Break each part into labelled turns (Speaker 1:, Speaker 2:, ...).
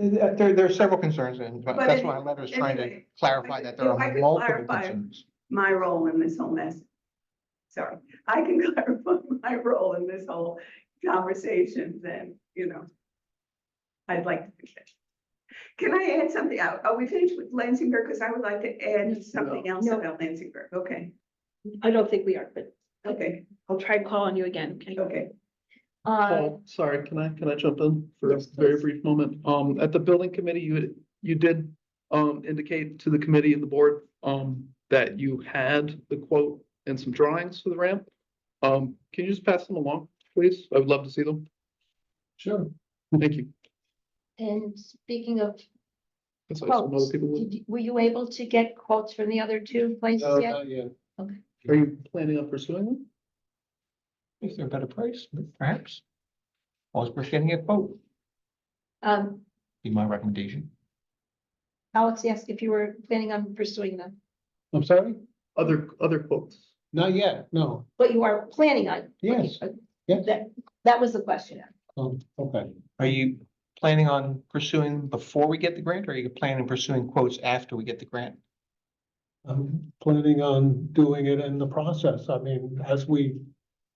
Speaker 1: Uh, There, there are several concerns and
Speaker 2: But
Speaker 1: that's
Speaker 2: any-
Speaker 1: why my letter is trying to
Speaker 2: anyway,
Speaker 1: clarify that there
Speaker 2: if I
Speaker 1: are
Speaker 2: could
Speaker 1: multiple
Speaker 2: clarify-
Speaker 1: concerns.
Speaker 2: my role in this whole mess. Sorry, I can clarify my role in this whole conversation then, you know. I'd like to finish. Can I add something out? Are we finished with Lansingburg? Because I would like to add something else
Speaker 3: No.
Speaker 2: about Lansingburg. Okay,
Speaker 3: I don't think we are, but
Speaker 2: okay,
Speaker 3: I'll try and call on you again. okay?
Speaker 2: okay.
Speaker 3: Uh,
Speaker 4: Paul, sorry, can I, can I jump in for a
Speaker 3: Yes,
Speaker 4: very
Speaker 3: please.
Speaker 4: brief moment? Um, at the building committee, you, had- you did um, indicate to the committee and the board um, that you had the quote and some drawings for the ramp. Um, can you just pass them along, please? I would love to see them. Sure. Thank you.
Speaker 5: And speaking of
Speaker 4: That's what some
Speaker 5: quotes,
Speaker 4: other people would. Uh,
Speaker 5: did you- were you able to get quotes from the other two places yet?
Speaker 4: Are you planning on pursuing them?
Speaker 1: Is there a better price, perhaps? Always worth getting a quote,
Speaker 5: Um,
Speaker 1: be my recommendation.
Speaker 5: Alex asked if you were planning on pursuing them,
Speaker 6: I'm sorry?
Speaker 4: Other, other quotes?
Speaker 6: Not yet, no.
Speaker 5: but you are planning on.
Speaker 6: Yes, yes.
Speaker 5: That, that was the question.
Speaker 6: Oh, okay.
Speaker 1: Are you planning on pursuing before we get the grant or are you planning on pursuing quotes after we get the grant?
Speaker 6: I'm planning on doing it in the process. I mean, as we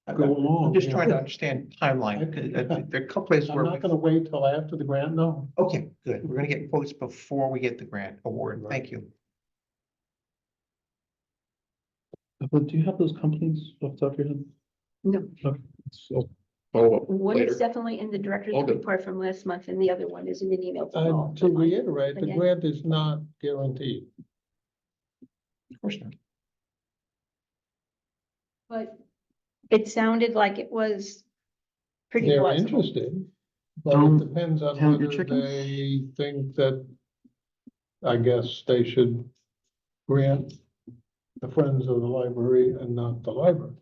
Speaker 1: I'm
Speaker 6: go along.
Speaker 1: I'm just
Speaker 6: you
Speaker 1: trying to
Speaker 6: know.
Speaker 1: understand timeline. 'cause I think There are a couple places
Speaker 6: I'm
Speaker 1: where,
Speaker 6: not
Speaker 1: we-
Speaker 6: gonna wait till after the grant, no.
Speaker 1: okay, good. We're gonna get quotes before we get the grant award. Thank you.
Speaker 4: But Uh, do you have those companies off the top of your head?
Speaker 3: No.
Speaker 4: Okay, so Follow up
Speaker 3: One
Speaker 4: later.
Speaker 3: is definitely in the director's
Speaker 4: All good. Uh,
Speaker 3: report from last month and the other one is in an email. from all
Speaker 6: And
Speaker 3: of
Speaker 6: to
Speaker 3: them.
Speaker 6: reiterate, the
Speaker 3: Again.
Speaker 6: grant is not guaranteed.
Speaker 1: Of course not.
Speaker 5: But
Speaker 3: It sounded like it was pretty
Speaker 6: They're
Speaker 3: plausible.
Speaker 6: interested, but
Speaker 4: Don't
Speaker 6: it depends on
Speaker 4: count your
Speaker 6: whether
Speaker 4: chickens.
Speaker 6: they think that, I guess they should grant the Friends of the Library and not the library.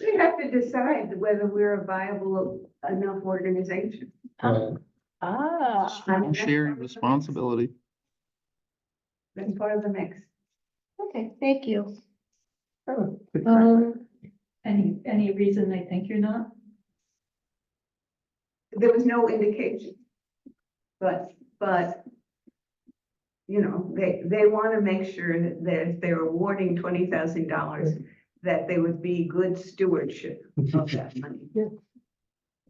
Speaker 2: We have to decide whether we're a viable enough organization.
Speaker 3: Ah,
Speaker 6: Uh,
Speaker 3: Ah,
Speaker 2: I mean, that's
Speaker 4: Share
Speaker 2: part
Speaker 4: your
Speaker 2: of the mix.
Speaker 4: responsibility.
Speaker 2: That's part of the mix.
Speaker 5: okay, thank you.
Speaker 3: um,
Speaker 7: Any, any reason they think you're not?
Speaker 2: There was no indication. But, but. You know, they, they want to make sure that if they're awarding twenty thousand dollars, that they would be good stewardship of that money.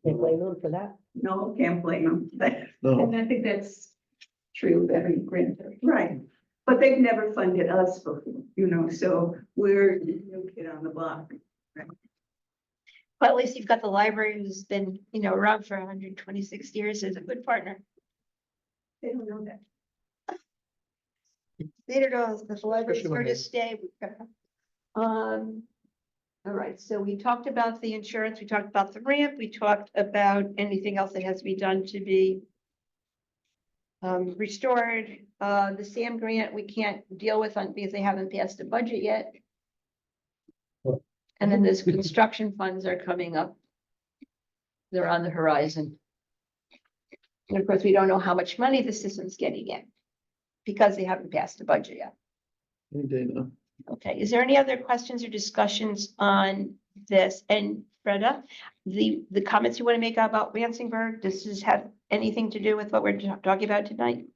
Speaker 3: they blame them for that.
Speaker 2: No, can't blame them. But-
Speaker 4: No,
Speaker 7: And I think that's true of every grant. that we-
Speaker 2: Right. But they've never funded us before, you know, so we're the new kid on the block.
Speaker 5: But at least you've got the library who's been, you know, around for hundred and twenty-six years as a good partner.
Speaker 2: They don't know that.
Speaker 5: Later knows that the library's
Speaker 1: Especially when
Speaker 5: here to
Speaker 1: they-
Speaker 5: stay. We've got to- Um, all right, so we talked about the insurance, we talked about the ramp, we talked about anything else that has to be done to be um, restored, uh, the SAM grant, we can't deal with on, because they haven't passed a budget yet.
Speaker 6: Well-
Speaker 5: And then those construction funds are coming up. They're on the horizon. And of course, we don't know how much money the system's getting in because they haven't passed the budget yet.
Speaker 4: any day now.
Speaker 5: Okay, is there any other questions or discussions on this? And Freda, the, the comments you want to make about Lansingburg, does this have anything to do with what we're ta- talking about tonight?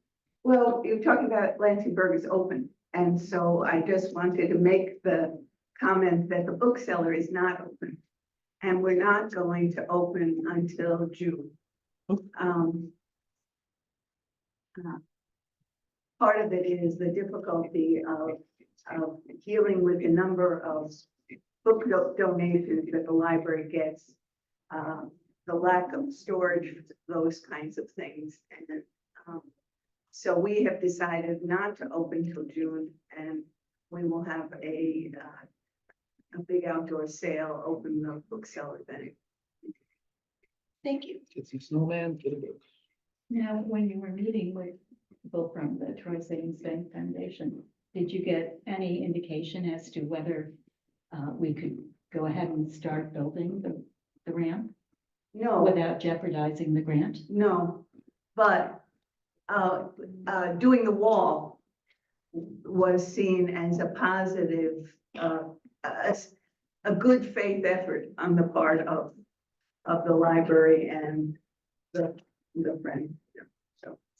Speaker 2: Well, you're talking about Lansingburg is open, and so I just wanted to make the comment that the bookseller is not open. And we're not going to open until June. Um, uh, Part of it is the difficulty of, of dealing with the number of book do- donations that the library gets. um, The lack of storage, those kinds of things, and, um, so we have decided not to open till June and we will have a, uh, a big outdoor sale, open the bookseller then.
Speaker 5: Thank you.
Speaker 4: Get some snowman, get a book.
Speaker 7: Now, when you were meeting with people from the Troy Savings Bank Foundation, did you get any indication as to whether uh, we could go ahead and start building the, the ramp
Speaker 2: No,
Speaker 7: without jeopardizing the grant?
Speaker 2: no, but, uh, uh, doing the wall was seen as a positive, uh, a, a good faith effort on the part of, of the library and the, the friend.